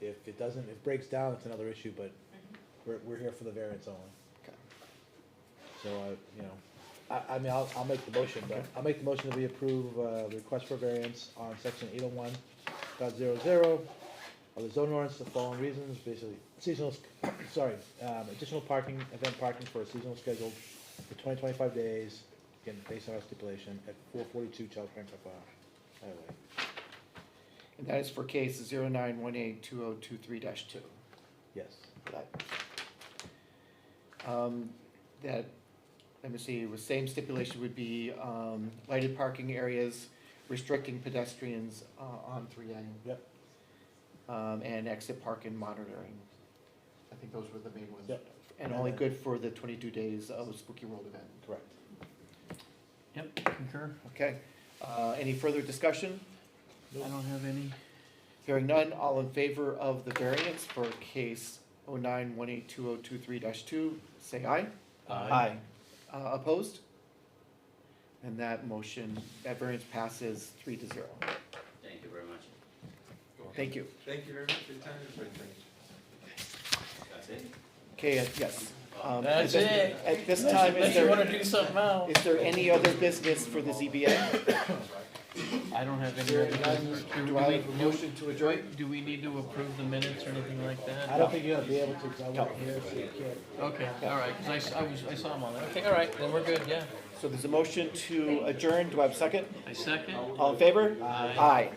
If it doesn't, if it breaks down, it's another issue, but we're, we're here for the variance only. Okay. So I, you know, I, I mean, I'll, I'll make the motion, but I'll make the motion that we approve, uh, request for variance on section eight oh one dot zero zero of the zone ordinance, for the following reasons, basically seasonal, s- sorry, um, additional parking, event parking for a seasonal schedule for twenty, twenty-five days, again, based on our stipulation at four forty-two Charles Franklin Highway. And that is for case zero nine one eight two oh two three dash two. Yes, Um, that, let me see, the same stipulation would be, um, lighted parking areas restricting pedestrians, uh, on three A. Yep. Um, and exit parking monitoring. I think those were the main ones. Yep. And only good for the twenty-two days of Spooky World event. correct. Yep, concur. Okay, uh, any further discussion? I don't have any. Hearing none, all in favor of the variance for case oh nine one eight two oh two three dash two, say aye. Aye. Uh, opposed? And that motion, that variance passes three to zero. Thank you very much. Thank you. Thank you very much for your time, everybody. Thank you. That's it? Okay, uh, yes. Um, That's at- it. At this time, is Unless you wanna there, do something else. is there any other business for the ZBA? I don't have any other business. Do I have a motion to adjourn? Do we need to approve the minutes or anything like I that? don't think you're gonna be able to, 'cause I wasn't here, so you can't. Okay, all right, 'cause I s- I, was, I saw him on there. Okay, all right, then we're good, yeah. So there's a motion to adjourn, do I have a second? I second. All in favor? Aye.